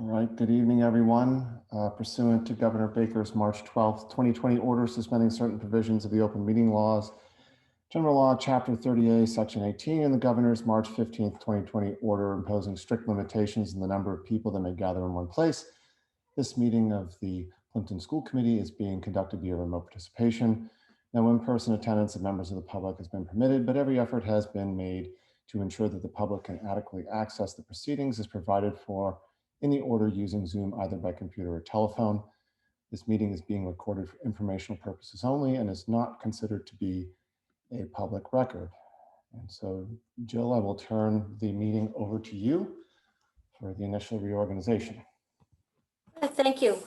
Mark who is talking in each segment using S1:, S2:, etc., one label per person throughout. S1: right, good evening, everyone. Uh, Pursuant to Governor Baker's March 12th, 2020 order suspending certain provisions of the open meeting laws, General Law, Chapter 30A, Section 18, and the Governor's March 15th, 2020 order imposing strict limitations in the number of people that may gather in one place. This meeting of the Plimpton School Committee is being conducted via remote participation. No in-person attendance of members of the public has been permitted, but every effort has been made to ensure that the public can adequately access the proceedings is provided for in the order using Zoom either by computer or telephone. This meeting is being recorded for informational purposes only and is not considered to be a public record. And so Jill, I will turn the meeting over to you for the initial reorganization.
S2: Uh, Thank you.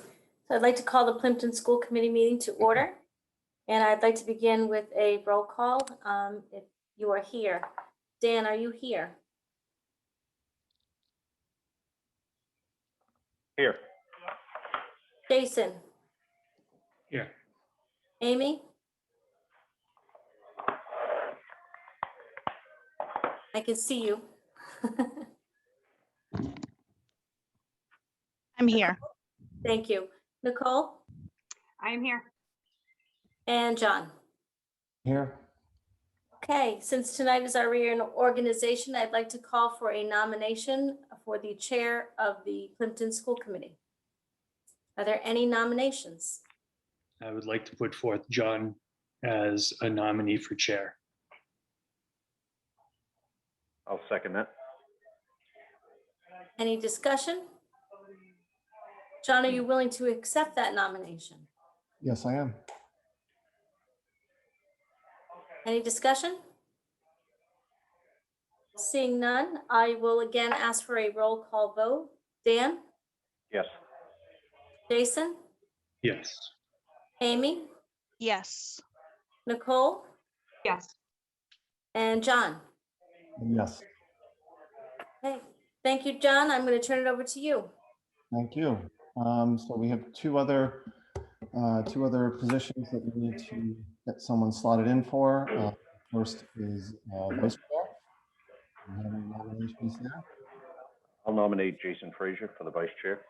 S2: So I'd like to call the Plimpton School Committee meeting to order. And I'd like to begin with a roll call, um, if you are here. Dan, are you here?
S3: Here.
S2: Jason?
S3: Here.
S2: Amy? I can see you.
S4: I'm here.
S2: Thank you. Nicole
S4: I am here.
S2: and John?
S1: Here,
S2: Okay, since tonight is our reorganization, I'd like to call for a nomination for the Chair of the Plimpton School Committee. Are there any nominations?
S3: I would like to put forth John as a nominee for chair.
S5: I'll second that.
S2: Any discussion? John, are you willing to accept that nomination?
S1: yes, I am.
S2: Any discussion? Seeing none, I will again ask for a roll call vote. Dan,
S5: Yes.
S2: Jason,
S3: Yes.
S2: Amy,
S4: Yes.
S2: Nicole,
S4: Yes.
S2: and John.
S1: Yes,
S2: Okay, thank you, John. I'm going to turn it over to you.
S1: thank you. Um, So we have two other, uh, two other positions that we need to get someone slotted in for. Uh, First is uh, vice chair. Do we have any nominations there?
S5: I'll nominate Jason Frazier for the vice chair.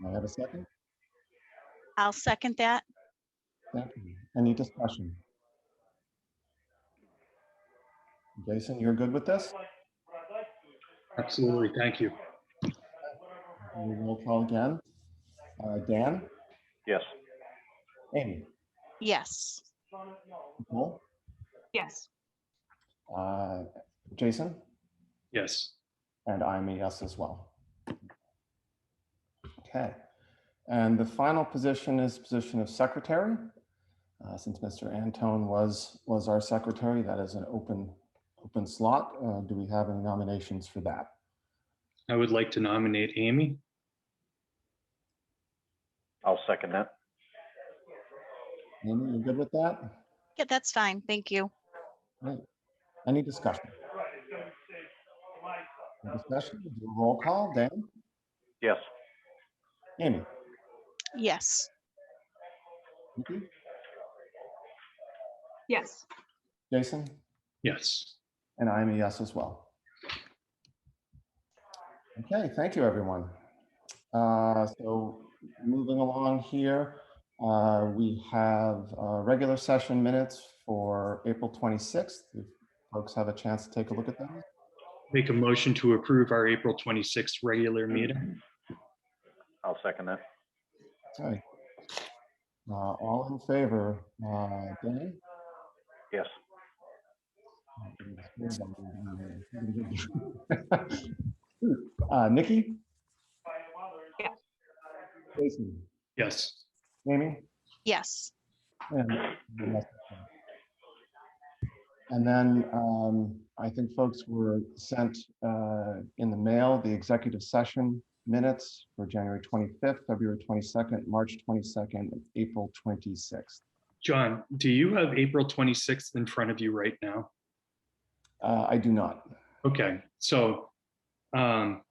S1: Do I have a second?
S4: I'll second that.
S1: Thank you. Any discussion? Jason, you're good with this?
S3: Absolutely. Thank you.
S1: We will call again. Uh, Dan,
S5: Yes.
S1: Amy,
S4: Yes.
S1: Nicole,
S4: Yes.
S1: uh, Jason,
S3: Yes.
S1: and I'm a yes as well. Okay. And the final position is position of secretary. Uh, Since Mr. Antone was, was our secretary, that is an open, open slot. Uh, Do we have any nominations for that?
S3: I would like to nominate Amy.
S5: I'll second that.
S1: Amy, you good with that?
S4: Yeah, that's fine. Thank you.
S1: Any discussion? No Discussion, We'll do a roll call, Dan,
S5: Yes.
S1: Amy,
S4: Yes.
S1: Nikki,
S4: Yes.
S1: Jason,
S3: Yes.
S1: and I'm a yes as well. Okay, thank you, everyone. Uh, So moving along here, uh, we have uh, regular session minutes for April 26th. If Folks have a chance to take a look at them.
S3: Make a motion to approve our April 26th regular meeting.
S5: I'll second that.
S1: Okay. Uh, All in favor, uh, Dan?
S5: Yes.
S1: Uh, Nikki?
S4: Yeah.
S1: Jason,
S3: Yes.
S1: Amy?
S4: Yes.
S1: and- And then um, I think folks were sent uh, in the mail, the executive session minutes for January 25th, February 22nd, March 22nd, and April 26th.
S3: John, do you have April 26th in front of you right now?
S1: Uh, I do not.
S3: Okay, so um,